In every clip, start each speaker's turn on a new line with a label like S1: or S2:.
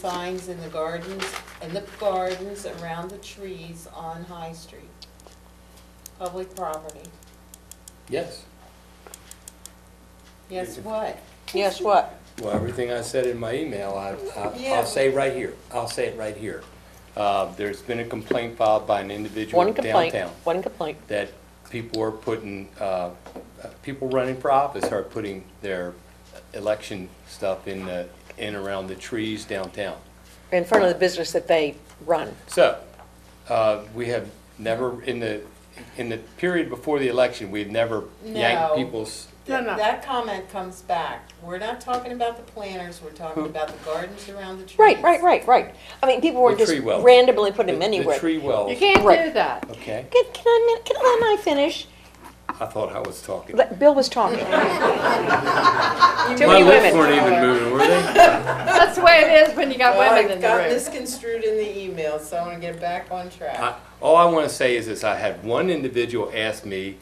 S1: signs in the gardens, in the gardens around the trees on High Street. Public property.
S2: Yes.
S1: Yes, what?
S3: Yes, what?
S2: Well, everything I said in my email, I, I-
S1: Yeah.
S2: I'll say right here, I'll say it right here. Uh, There's been a complaint filed by an individual
S3: One complaint,
S2: downtown
S3: one complaint.
S2: that people are putting, uh, uh, people running for office are putting their election stuff in, the- in around the trees downtown.
S3: In front of the business that they run.
S2: So, uh, we have never, in the, in the period before the election, we've never
S1: No.
S2: yanked people's,
S4: No, no.
S1: That comment comes back. We're not talking about the planters, we're talking about the gardens around the trees.
S3: Right, right, right, right. I mean, people were
S2: The
S3: just
S2: tree well.
S3: randomly
S2: the
S3: putting them
S2: the
S3: anywhere. Can,
S2: tree wells.
S4: You can't do
S3: Right.
S4: that.
S2: Okay,
S3: can I, min- can I not finish?
S2: I thought I was talking.
S3: Let- Bill was talking.
S4: Too
S2: My
S4: many
S2: lips weren't
S4: women.
S2: even moving, were they?
S4: That's the way it is when you got
S1: Well,
S4: women
S1: it
S4: in the
S1: got
S4: room.
S1: misconstrued in the email, so I wanna get it back on track.
S2: I- All I want to say is this, I had one individual ask me,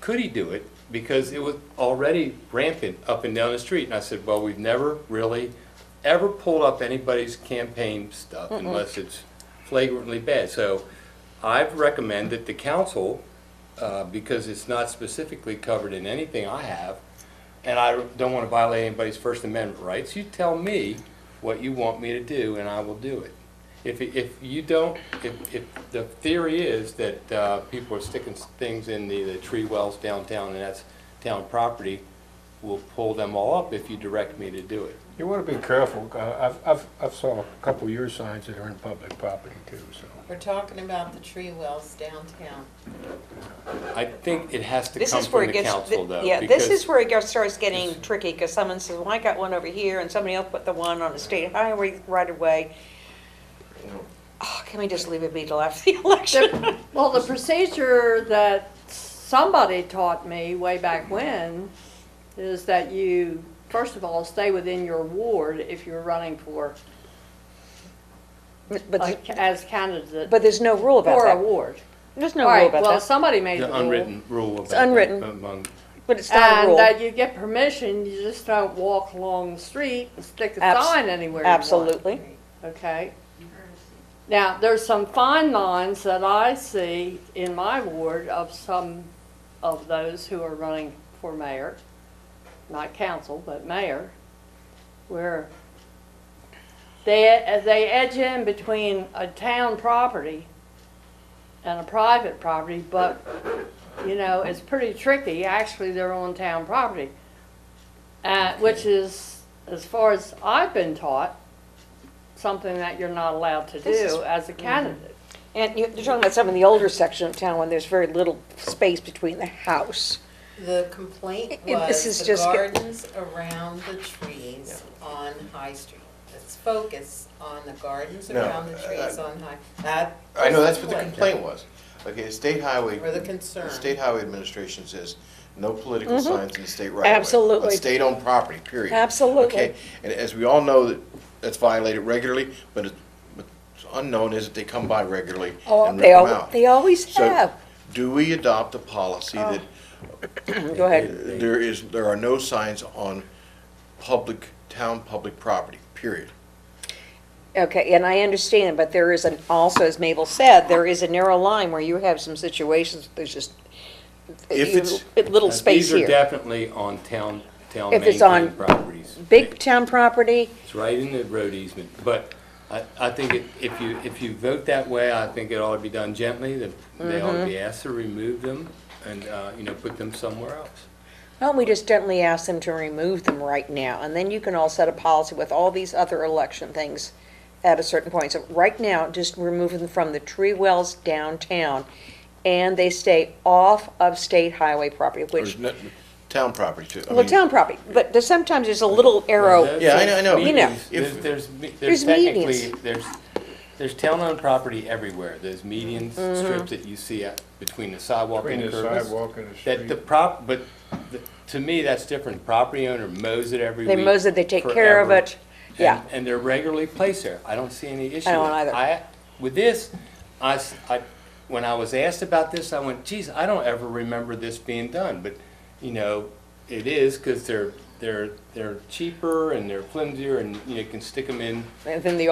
S2: could he do it? Because it was already rampant up and down the street. And I said, well, we've never really ever pulled up anybody's campaign stuff unless it's flagrantly bad. So I've recommend that the council, uh, because it's not specifically covered in anything I have, and I don't want to violate anybody's First Amendment rights, you tell me what you want me to do, and I will do it. If, if you don't, if, if the theory is that uh, people are sticking things in the, the tree wells downtown, and that's town property, we'll pull them all up if you direct me to do it.
S5: You want to be careful. Uh, I've, I've, I've saw a couple of your signs that are in public property too, so.
S1: We're talking about the tree wells downtown.
S2: I think it has to
S3: This
S2: come
S3: is where
S2: from
S3: it
S2: the
S3: gets,
S2: council, though.
S3: yeah, this
S2: because-
S3: is where it gets, starts getting tricky, because someone says, well, I got one over here, and somebody else put the one on the state highway right away. Oh, can we just leave it be till after the election?
S4: Well, the procedure that somebody taught me way back when is that you, first of all, stay within your ward if you're running for,
S3: But, but-
S4: like, as candidate
S3: but there's no rule about
S4: for a
S3: that.
S4: ward.
S3: There's
S4: All
S3: no rule
S4: right,
S3: about
S4: well,
S3: that,
S4: somebody made the
S2: The
S4: rule.
S2: unwritten rule about.
S3: unwritten.
S2: Among,
S3: but it's not a
S4: And
S3: rule.
S4: that you get permission, you just don't walk along the street and stick a
S3: Abs-
S4: sign anywhere you want.
S3: Absolutely.
S4: Okay. Now, there's some fine lines that I see in my ward of some of those who are running for mayor, not council, but mayor, where they, they edge in between a town property and a private property, but, you know, it's pretty tricky. Actually, they're on town property. Uh, which is, as far as I've been taught, something that you're not allowed to
S3: This is- Mhm.
S4: do as a candidate.
S3: And you- you're talking about some of the older section of town when there's very little space between the house.
S1: The complaint
S3: It- this
S1: was
S3: is
S1: the
S3: just get-
S1: gardens around the trees on High Street. Let's focus on the gardens
S6: No,
S1: around the trees on High, that.
S6: I know,
S1: was
S6: that's what the complaint was. Okay, the state highway.
S1: Or the concern.
S6: the State highway administration says, no political signs in the state right of way.
S3: Mm-hmm. Absolutely.
S6: On state-owned property, period.
S3: Absolutely.
S6: Okay, and as we all know, that that's violated regularly, but it- what's unknown is that they come by regularly and rip
S3: Oh, They
S6: them
S3: al,
S6: out.
S3: they always
S6: So,
S3: have.
S6: Do we adopt a policy that
S3: Go ahead.
S6: there is, there are no signs on public, town public property, period?
S3: Okay, and I understand, but there is an, also, as Mabel said, there is a narrow line where you have some situations, there's just
S6: If
S3: you-
S6: it's-
S3: little
S2: Uh,
S3: space
S2: These are
S3: here.
S2: definitely on town, town
S3: If it's
S2: maintained
S3: on
S2: properties.
S3: Big town property,
S2: It's right in the road easement, but I, I think it- if you, if you vote that way, I think it ought to be done gently, that they ought to be
S3: Mm-hmm.
S2: asked to remove them and, uh, you know, put them somewhere else.
S3: why don't we just gently ask them to remove them right now? And then you can all set a policy with all these other election things at a certain point. So right now, just remove them from the tree wells downtown, and they stay off of state highway property,
S6: Or
S3: which,
S6: is it town property too? I
S3: well,
S6: mean-
S3: town property, but there's sometimes there's a little arrow.
S6: Yeah, I know- I know.
S3: You know.
S2: Meetings, There's, there's, me- there's
S3: There's
S2: technically,
S3: medians.
S2: there's, there's town-owned property everywhere. There's median
S3: Mm-hmm.
S2: strips that you see at, between the sidewalk and
S5: Between
S2: the
S5: the
S2: curb.
S5: sidewalk and the
S2: That the
S5: street.
S2: prop, but the- to me, that's different. Property owner mows it every
S3: They
S2: week.
S3: mows it, they take care of
S2: forever.
S3: it. Yeah.
S2: And- And they're regularly placed there. I don't see any issue.
S3: I don't
S2: with it.
S3: either.
S2: I- With this, I, s- I- when I was asked about this, I went, geez, I don't ever remember this being done. But, you know, it is because they're, they're, they're cheaper and they're flimsier and, you know, you can stick them in
S3: And then the